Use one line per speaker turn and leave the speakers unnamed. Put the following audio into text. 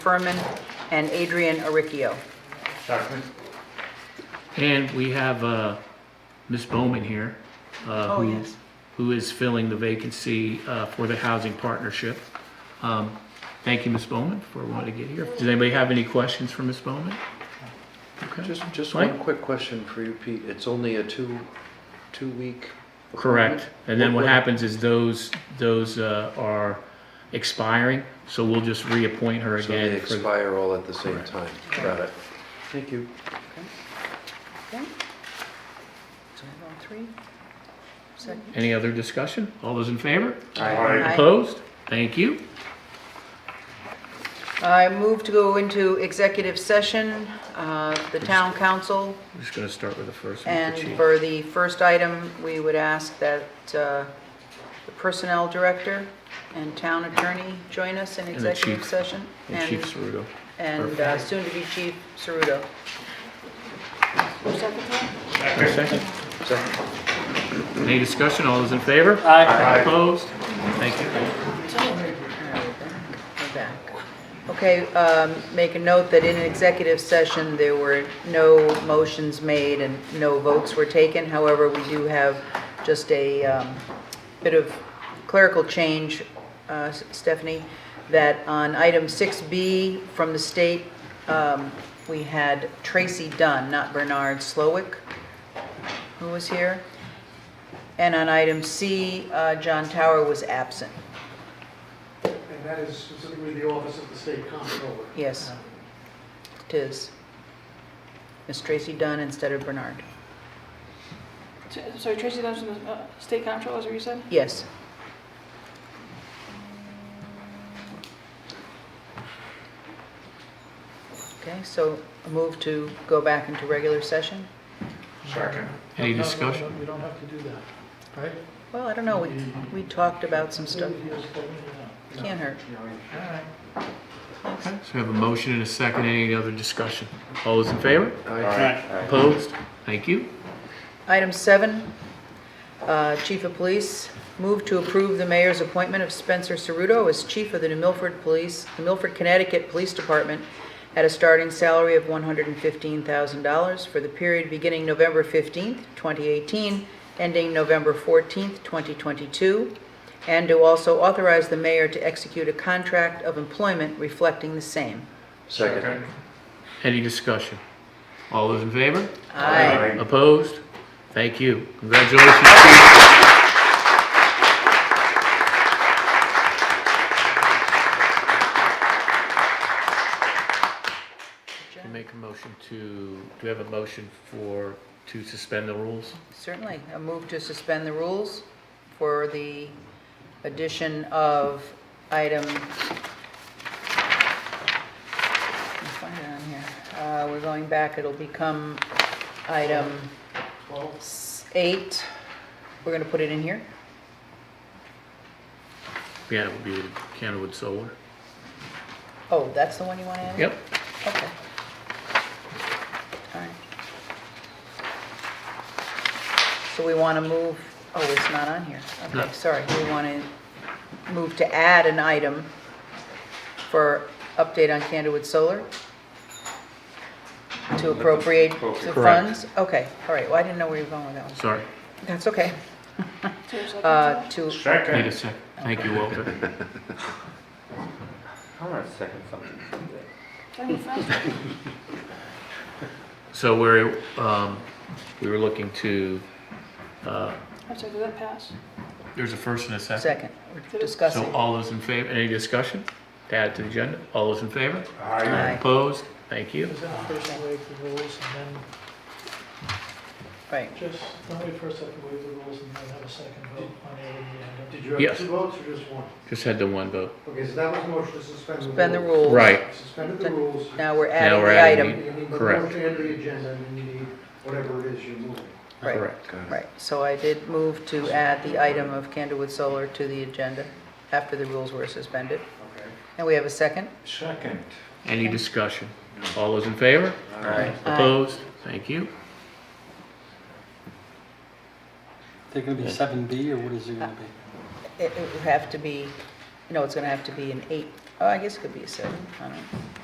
Furman, and Adrian Aricchio.
Second.
And we have uh, Ms. Bowman here. uh,
Oh,
who-
yes.
Who is filling the vacancy uh, for the Housing Partnership. Um, Thank you, Ms. Bowman, for wanting to get here. Does anybody have any questions for Ms. Bowman? Okay.
Just, just
Mike?
one quick question for you, Pete. It's only a two, two-week. appointment?
Correct. And then what
What-
happens is those, those uh, are expiring, so we'll just reappoint her
So they
again. for-
expire all at the same
Correct.
time. Got it. Thank you.
Okay. So we're on three. Second.
Any other discussion? All those in favor?
Aye.
Opposed? Thank you.
I move to go into executive session, uh, the town council,
I'm just going to start with the first one.
and
the chief.
for the first item, we would ask that uh, the personnel director and town attorney join us in
the
executive
chief.
session.
And Chief Cerudo.
And uh, soon-to-be Chief Cerudo.
Second.
Second.
Any discussion? All those in favor? Aye. Opposed? Thank you.
We're back. Okay, um, make a note that in an executive session, there were no motions made and no votes were taken. However, we do have just a um, bit of clerical change, uh, S- Stephanie, that on item 6B from the state, um, we had Tracy Dunn, not Bernard Slowick, who was here. And on item C, uh, John Tower was absent.
And that is specifically the office of the state comptroller.
Yes. Tis. Miss Tracy Dunn instead of Bernard.
So- Sorry, Tracy Dunn from the uh, State Comptroller, is what you said?
Yes. Okay, so a move to go back into regular session?
Second.
Any
No, no,
discussion?
no, You don't have to do that, right?
Well, I don't know, we, we talked about some stuff.
No.
Can't hurt.
All right.
Okay, So we have a motion and a second. Any other discussion? All those in favor?
Aye.
Opposed? Thank you.
Item seven, uh, Chief of Police, move to approve the mayor's appointment of Spencer Ceruto as chief of the New Milford Police, New Milford, Connecticut Police Department at a starting salary of $115,000 for the period beginning November 15th, 2018, ending November 14th, 2022, and to also authorize the mayor to execute a contract of employment reflecting the same.
Second.
Any discussion? All those in favor?
Aye.
Opposed? Thank you. Congratulations, Chief. Can I Make a motion to, do we have a motion for, to suspend the rules?
Certainly. A move to suspend the rules for the addition of item... Let me find it on here. Uh, We're going back, it'll become item
Twelve.
s- eight. We're going to put it in here?
Yeah, it would be Canterwood Solar.
Oh, that's the one you want to add?
Yep.
Okay. All right. So we want to move, oh, it's not on here.
No.
Okay, sorry. We want to move to add an item for update on Candlewood Solar? To appropriate the
Appropriate.
funds? Okay, all right. Well, I didn't know where you were going with that one.
Sorry.
That's okay.
So you're second
Uh,
to that?
To,
Need
Second.
a sec. Thank you, Walter.
I want to second something.
Can I move first?
So we're, um, we were looking to, uh,
I'm sorry, did that pass?
there's a first and a second.
second, we're discussing.
So all those in favor, any discussion to add to the agenda? All those in favor?
Aye.
Opposed? Thank you.
Is that the first wave of the rules and then
Right.
just, don't we first have to waive the rules and then have a second vote on the agenda? Did you
Yes.
two votes or just one?
Just had the one vote.
Okay, so that was motion to suspend
Suspend the rules.
Suspended
the
rules.
Now we're
Now
adding
we're
the
adding
item.
You need
the Correct. motion
and the agenda, and you need whatever it is you're moving.
Right.
Correct.
Right, so I did move to add the item of Candlewood Solar to the agenda after the rules were suspended.
Okay.
And we have a second?
Second.
Any discussion? All those in favor?
Aye.
Opposed? Thank you.
They're gonna be seven B, or what is it gonna be?
It it would have to be, no, it's going to have to be an eight Oh, I guess it could be a seven, I don't know.